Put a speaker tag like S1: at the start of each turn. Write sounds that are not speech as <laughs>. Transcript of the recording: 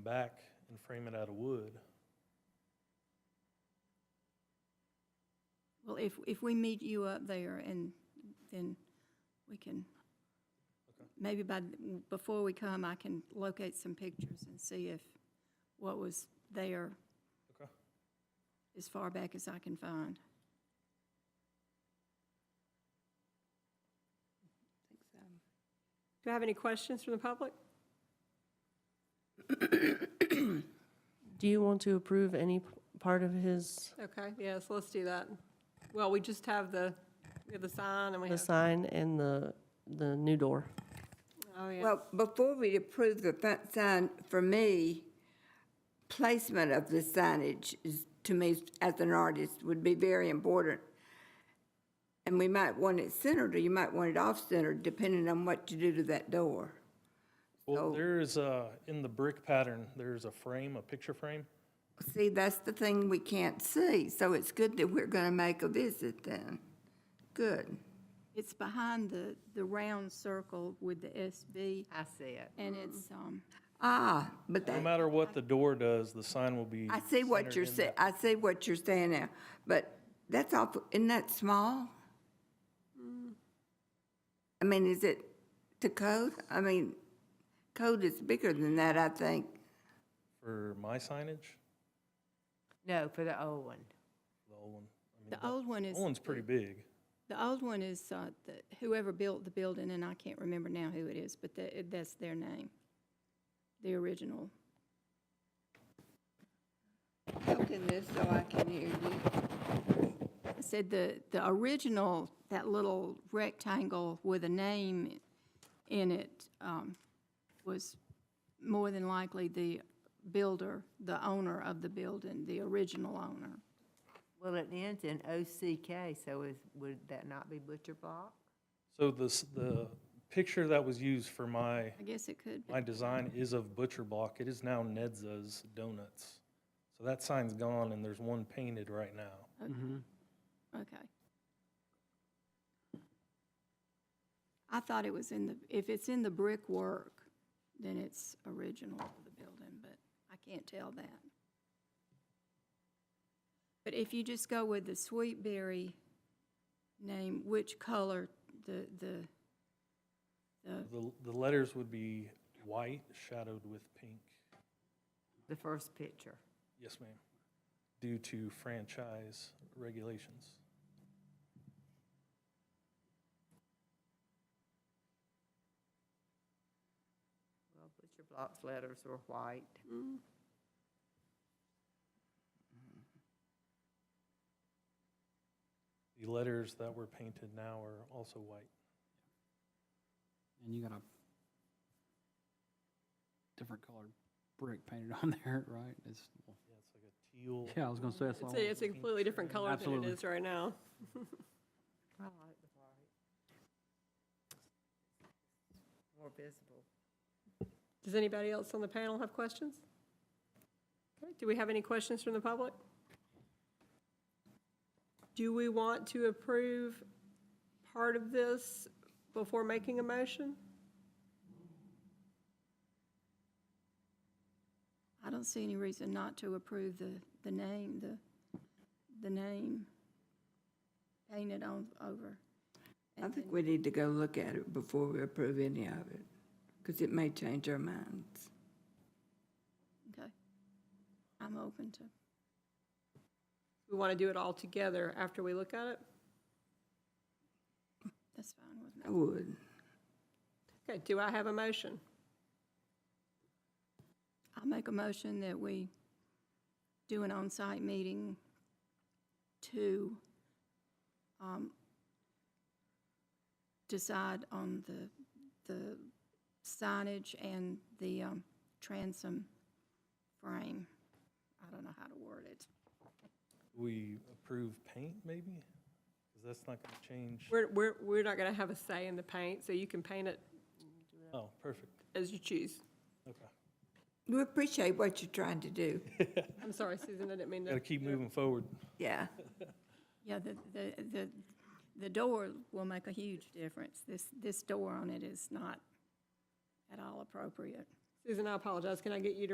S1: back and frame it out of wood.
S2: Well, if, if we meet you up there and then we can, maybe by, before we come, I can locate some pictures and see if what was there
S1: Okay.
S2: as far back as I can find.
S3: think so. Do I have any questions from the public?
S4: Do you want to approve any p- part of his,
S3: Okay, yes, let's do that. Well, we just have the, we have the sign and we
S4: the
S3: have,
S4: sign and the, the new door?
S3: oh, yeah.
S5: Well, before we approve the front sign, for me, placement of the signage is, to me, as an artist, would be very important. And we might want it centered, or you might want it off-centered, depending on what you do to that door.
S1: Well,
S6: Oh.
S5: So-
S1: there is a, in the brick pattern, there's a frame, a picture frame.
S5: See, that's the thing we can't see, so it's good that we're gonna make a visit then. Good.
S2: It's behind the, the round circle with the SB,
S6: I see it.
S2: and it's, um,
S5: Ah, but
S1: No
S5: that,
S1: matter what the door does, the sign will be.
S5: I see what
S1: centered
S5: you're
S1: in
S5: saying,
S1: that-
S5: I see what you're saying now, but that's awful, isn't that small? I mean, is it to code? I mean, code is bigger than that, I think.
S1: For my signage,
S6: No, for the old one.
S1: the old one. I mean,
S2: the old one is.
S1: Old one's pretty big.
S2: The old one is, uh, the- whoever built the building, and I can't remember now who it is, but tha- that's their name, the original.
S5: Open this so I can hear you.
S2: I said the, the original, that little rectangle with a name in it um, was more than likely the builder, the owner of the building, the original owner.
S6: Well, it ends in OCK, so is, would that not be Butcher Block?
S1: So this, the picture that was used for my,
S2: I guess it could be.
S1: my design is of Butcher Block. It is now Nedza's Donuts. So that sign's gone and there's one painted right now.
S2: Okay. I thought it was in the, if it's in the brickwork, then it's original of the building, but I can't tell that. But if you just go with the sweet berry name, which color, the, the, the,
S1: The, the letters would be white shadowed with pink.
S6: The first picture.
S1: Yes, ma'am. Due to franchise regulations.
S6: Well, Butcher Block's letters were white.
S1: The letters that were painted now are also white.
S7: And you got a different colored brick painted <laughs> on there, right? It's,
S1: Yeah, it's like a teal.
S7: yeah, I was gonna say it's all.
S3: It's a, it's a completely different color than it
S7: Absolutely.
S3: is right now.
S6: I like the white. More visible.
S3: Does anybody else on the panel have questions? Okay, Do we have any questions from the public? Do we want to approve part of this before making a motion?
S2: I don't see any reason not to approve the, the name, the, the name painted on, over.
S5: I think we need to go look at it before we approve any of it, because it may change our minds.
S2: Okay. I'm open to.
S3: We want to do it all together after we look at it?
S2: That's fine with me.
S5: I would.
S3: Okay, do I have a motion?
S2: I make a motion that we do an on-site meeting to um, decide on the, the signage and the um, transom frame. I don't know how to word it.
S1: We approve paint, maybe? Because that's not going to change.
S3: We're, we're, we're not going to have a say in the paint, so you can paint it
S1: Oh, perfect.
S3: as you choose.
S1: Okay.
S5: We appreciate what you're trying to do.
S3: I'm sorry, Susan, I didn't mean
S1: Got to
S3: to.
S1: keep moving forward.
S5: Yeah.
S2: Yeah, the, the, the, the door will make a huge difference. This, this door on it is not at all appropriate.
S3: Susan, I apologize. Can I get you to